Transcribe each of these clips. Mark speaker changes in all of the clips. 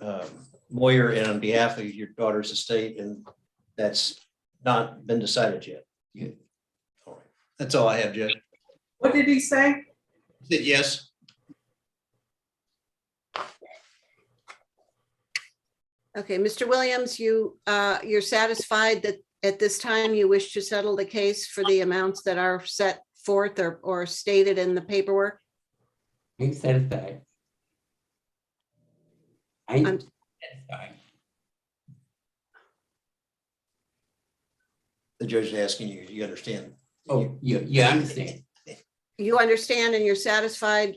Speaker 1: um, Moyer and on behalf of your daughter's estate, and that's not been decided yet. Yeah. All right. That's all I have, Judge.
Speaker 2: What did he say?
Speaker 1: Said yes.
Speaker 3: Okay, Mr. Williams, you, uh, you're satisfied that at this time you wish to settle the case for the amounts that are set forth or, or stated in the paperwork?
Speaker 4: I'm satisfied. I'm
Speaker 3: I'm-
Speaker 4: satisfied.
Speaker 1: The judge is asking you, you understand?
Speaker 4: Oh, you, you understand?
Speaker 3: You understand and you're satisfied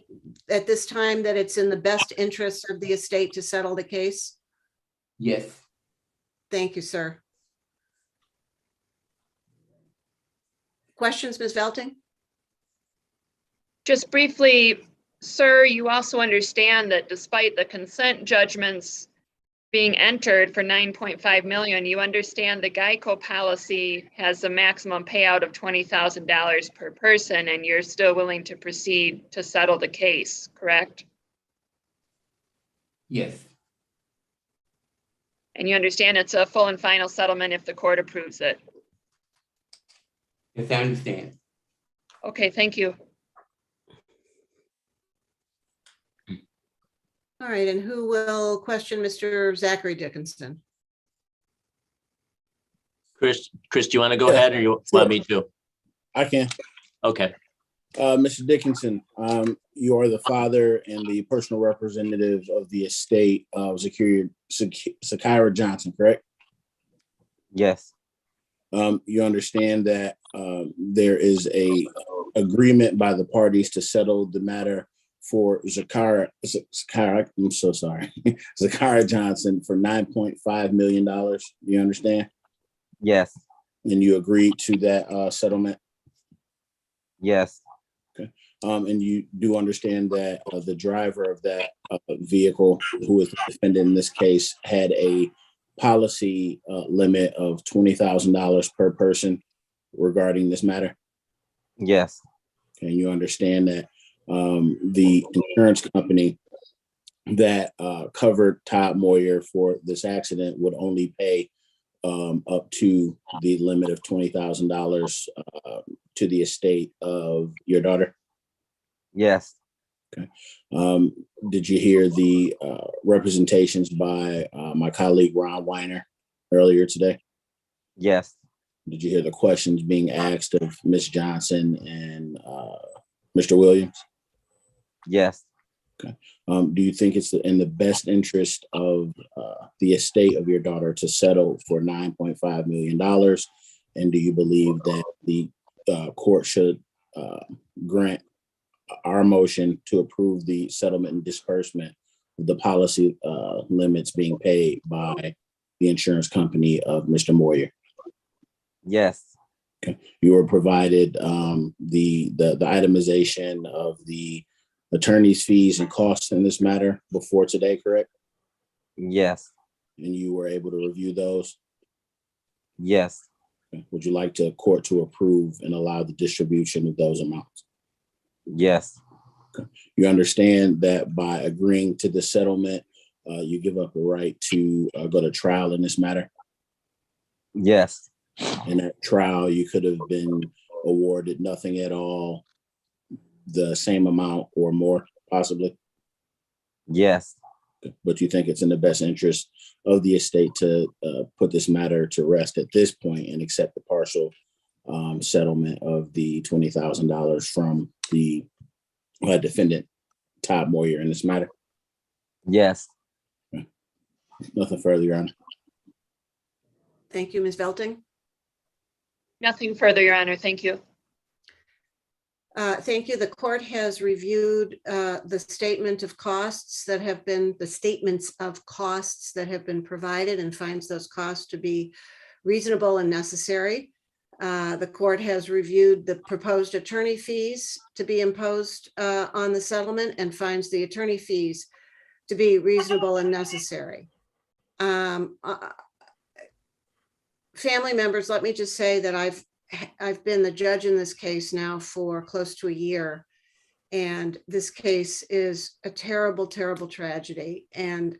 Speaker 3: at this time that it's in the best interest of the estate to settle the case?
Speaker 4: Yes,
Speaker 3: Thank you, sir. Questions, Ms. Velting?
Speaker 5: Just briefly, sir, you also understand that despite the consent judgments being entered for 9.5 million, you understand the Geico policy has a maximum payout of $20,000 per person, and you're still willing to proceed to settle the case, correct?
Speaker 4: yes,
Speaker 5: And you understand it's a full and final settlement if the court approves it.
Speaker 4: yes, I understand.
Speaker 5: Okay, thank you.
Speaker 3: All right, and who will question Mr. Zachary Dickinson?
Speaker 6: Chris, Chris, do you want to go
Speaker 7: Yeah.
Speaker 6: ahead or you
Speaker 7: Sure.
Speaker 6: want me to?
Speaker 7: I can.
Speaker 6: Okay,
Speaker 7: Uh, Mr. Dickinson, um, you are the father and the personal representative of the estate of Zakira, Zak- Zakira Johnson, correct?
Speaker 8: Yes,
Speaker 7: Um, you understand that, um, there is a agreement by the parties to settle the matter for Zakira, Z- Zakira, I'm so sorry, Zakira Johnson for nine point five million dollars. You understand?
Speaker 8: yes,
Speaker 7: And you agreed to that, uh, settlement?
Speaker 8: yes,
Speaker 7: Um, and you do understand that uh, the driver of that uh, vehicle, who is the defendant in this case, had a policy uh, limit of twenty thousand dollars per person regarding this matter.
Speaker 8: yes,
Speaker 7: And you understand that um, the insurance company that uh, covered Todd Moyer for this accident would only pay um, up to the limit of twenty thousand dollars uh, to the estate of your daughter.
Speaker 8: yes,
Speaker 7: Um, did you hear the uh, representations by uh, my colleague Ron Weiner earlier today?
Speaker 8: yes,
Speaker 7: Did you hear the questions being asked of Ms. Johnson and uh, Mr. Williams?
Speaker 8: yes,
Speaker 7: Um, do you think it's in the best interest of uh, the estate of your daughter to settle for nine point five million dollars? And do you believe that the uh, court should uh, grant our motion to approve the settlement and disbursement of the policy uh, limits being paid by the insurance company of Mr. Moyer?
Speaker 8: yes,
Speaker 7: you were provided um, the, the the itemization of the attorney's fees and costs in this matter before today, correct?
Speaker 8: yes,
Speaker 7: And you were able to review those.
Speaker 8: yes,
Speaker 7: Would you like to court to approve and allow the distribution of those amounts?
Speaker 8: yes,
Speaker 7: You understand that by agreeing to the settlement, uh, you give up a right to uh, go to trial in this matter.
Speaker 8: yes,
Speaker 7: in that trial, you could have been awarded nothing at all, the same amount or more possibly.
Speaker 8: yes,
Speaker 7: but you think it's in the best interest of the estate to uh, put this matter to rest at this point and accept the partial um, settlement of the twenty thousand dollars from the uh, defendant, Todd Moyer, in this matter.
Speaker 8: yes,
Speaker 7: Nothing further, Your Honor.
Speaker 3: Thank you, Ms. Velting.
Speaker 5: Nothing further, Your Honor. Thank you.
Speaker 3: Uh, Thank you. The court has reviewed uh, the statement of costs that have been, the statements of costs that have been provided and finds those costs to be reasonable and necessary. Uh, The court has reviewed the proposed attorney fees to be imposed uh, on the settlement and finds the attorney fees to be reasonable and necessary. Um, uh, Family members, let me just say that I've ha- I've been the judge in this case now for close to a year. And this case is a terrible, terrible tragedy. And